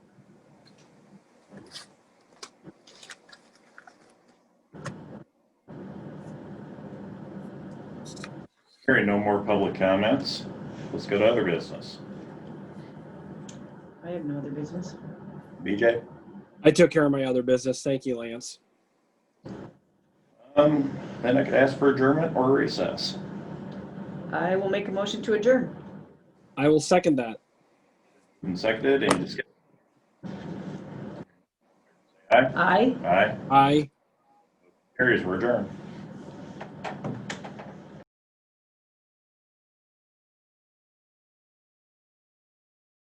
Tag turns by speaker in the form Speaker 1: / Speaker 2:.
Speaker 1: Hearing no more public comments, let's go to other business.
Speaker 2: I have no other business.
Speaker 1: BJ?
Speaker 3: I took care of my other business. Thank you, Lance.
Speaker 1: Um, then I could ask for adjournment or recess.
Speaker 2: I will make a motion to adjourn.
Speaker 3: I will second that.
Speaker 1: And seconded and discussed.
Speaker 2: Aye.
Speaker 1: Aye.
Speaker 3: Aye.
Speaker 1: Carries, we're adjourned.